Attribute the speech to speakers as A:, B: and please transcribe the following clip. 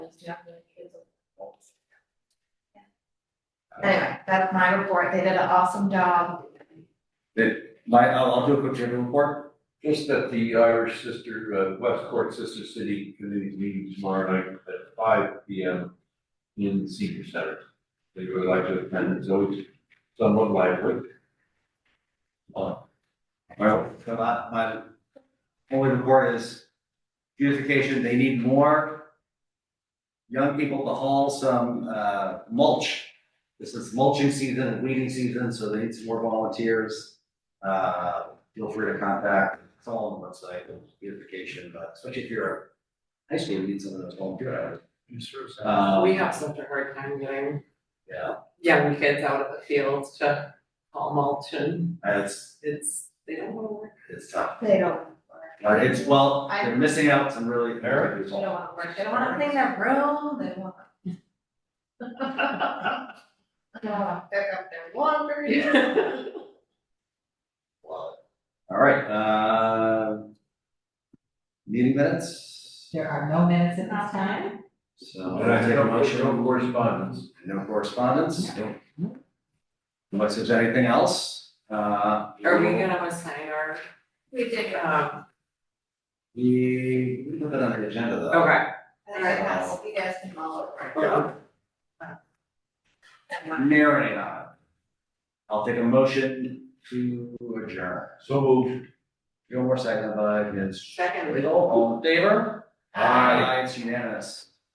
A: Anyway, that's my report, they did an awesome job,
B: My, I'll, I'll do a quick general report.
C: Just that the Irish Sister, uh, Westport Sister City Committee meeting tomorrow night at five P M in the Senior Center. If you would like to attend, it's always somewhat lively. Uh,
B: Well, so my, my only report is beautification, they need more young people to haul some, uh, mulch. This is mulching season and weeding season, so they need some more volunteers. Uh, feel free to contact, it's all on the website, beautification, but especially if you're a high school, you need some of those volunteer hours.
C: Uh,
B: Um,
D: Uh, We have such a hard time getting
B: Yeah,
D: young kids out of the fields to haul mulch and
B: it's,
D: it's, they don't wanna work.
B: it's tough.
A: they don't.
B: Uh, It's, well,
A: I-
B: they're missing out some really good
A: They don't
B: results.
A: wanna work, they don't wanna clean their room, they don't wanna. They don't wanna pick up their laundry.
B: All right, uh. Meeting minutes,
E: There are no minutes at this
A: Not
E: time.
A: time.
B: so.
C: And I have no correspondence.
B: No correspondence? Unless there's anything else, uh.
D: Are we gonna assign our,
A: We did, uh,
D: um,
B: We, we put that on the agenda though.
D: okay,
A: I think that's, you guys can all over.
B: Yeah. Marinate on. it. uh, I'll take a motion to adjourn.
C: So moved.
B: Gilmore, second by Ms.
D: second.
B: Riddle, all in favor?
C: Aye.
B: It's unanimous.